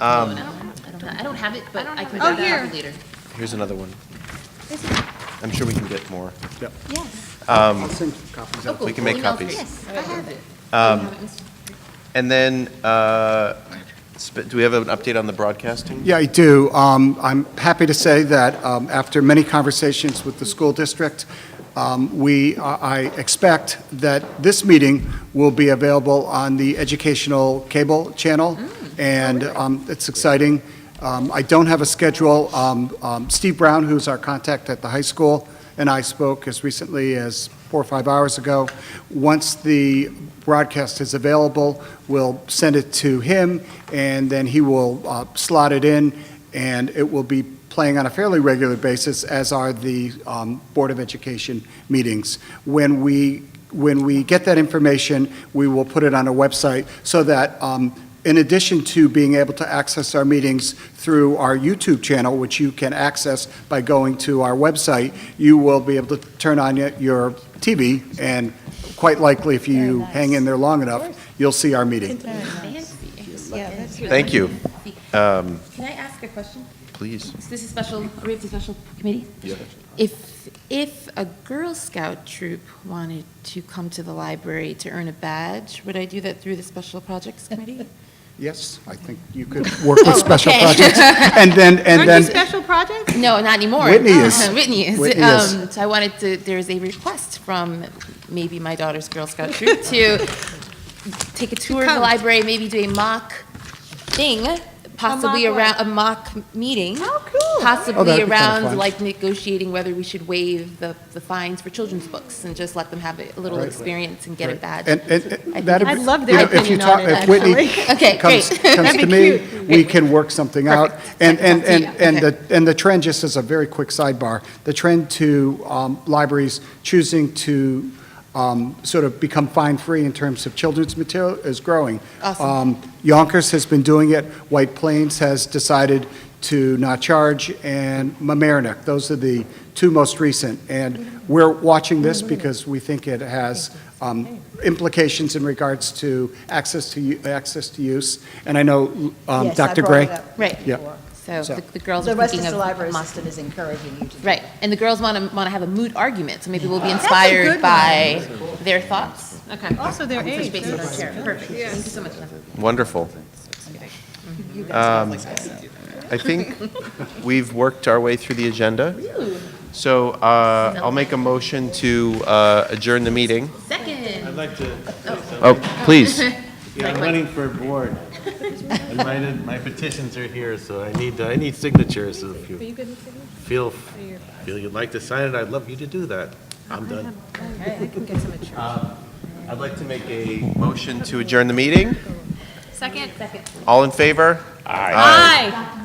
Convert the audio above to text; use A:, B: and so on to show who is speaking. A: Um,
B: I don't have- I don't have- I don't have it, but I can
C: it.
B: grab
C: Oh, here.
B: it later.
A: Here's another one. I'm sure we can get more.
D: Yep.
C: Yes.
D: I'll send copies
B: Oh,
D: out.
B: cool.
A: can make
B: Email
A: copies.
B: Chris. I have it. You have it, Mr.
A: And then, uh, sp- do we have an update on the broadcasting?
D: Yeah, I do. Um, I'm happy to say that um, after many conversations with the school district, um, we, I I expect that this meeting will be available on the educational cable channel, and um, it's exciting. Um, I don't have a schedule. Um, um, Steve Brown, who's our contact at the high school, and I spoke as recently as four or five hours ago. Once the broadcast is available, we'll send it to him, and then he will uh, slot it in, and it will be playing on a fairly regular basis, as are the um, Board of Education meetings. When we, when we get that information, we will put it on a website so that, um, in addition to being able to access our meetings through our YouTube channel, which you can access by going to our website, you will be able to turn on y- your TV, and quite likely, if you hang in there long enough, you'll see our meeting.
B: Fancy.
C: Yeah, that's
A: Thank you. Um,
B: Can I ask a question?
A: Please.
B: So This is special, are we have the special committee?
A: Yeah.
B: If, if a Girl Scout troop wanted to come to the library to earn a badge, would I do that through the special projects committee?
D: Yes, I think you could work with special projects. And then, and
C: Oh, Aren't you
D: then,
C: special projects?
B: No, not anymore.
D: Whitney is.
B: Whitney is.
D: Whitney is.
B: Um, So I wanted to, there's a request from maybe my daughter's Girl Scout troop to take a tour of the
C: come.
B: library, maybe do a mock thing, possibly
C: what?
B: around, a mock meeting.
C: Oh, cool.
D: Oh, that'd
B: Possibly
D: be kinda
B: around,
D: fun.
B: like negotiating whether we should waive the, the fines for children's books and just let them have a little experience and get a badge.
D: and, and- and that'd be.
C: I'd love
D: you
C: their
D: know, if you
C: opinion
D: talk-
C: on it,
D: if Whitney
C: actually.
B: Okay,
D: comes,
B: great.
D: comes to
C: That'd be
D: me, we can work something out.
B: Perfect.
D: And, and,
B: Talk to
D: and,
B: you.
D: and
B: Okay.
D: the, and the trend, just as a very quick sidebar, the trend to um, libraries choosing to um, sort of become fine-free in terms of children's material is growing.
B: Awesome.
D: Um, Yonkers has been doing it, White Plains has decided to not charge, and Mamaroneck, those are the two most recent. And we're watching this
E: Mm-hmm.
D: because we think it has um, implications in regards to access to, u- access to use. And I know um,
E: Yes, I
D: Dr.
E: brought
D: Gray.
E: it up
B: Right.
D: Yeah.
E: before.
B: So
D: So-
B: the the girls are
E: The rest
B: thinking
E: of
B: of.
E: the
B: a
E: library
B: mock-
E: system is encouraging you to do
B: Right, and the girls want to want to have a mood argument, so maybe we'll be
C: a good
B: inspired
C: one.
B: by their thoughts.
C: Okay. Also their age.
B: Based on our chair. Perfect. Thank you so much.
A: Wonderful. Um, I think we've worked our way through the agenda. So uh, I'll make a motion to uh, adjourn the meeting.
B: Second.
F: I'd like to,
A: Oh, please.
F: yeah, I'm running for board. And my, my petitions are here, so I need, I need signatures Oh, if you. Feel, feel you'd like to sign it, I'd love you to do that. I'm done.
A: I'd like to make a motion to adjourn the meeting.
C: Second.
A: All in favor?
C: Aye.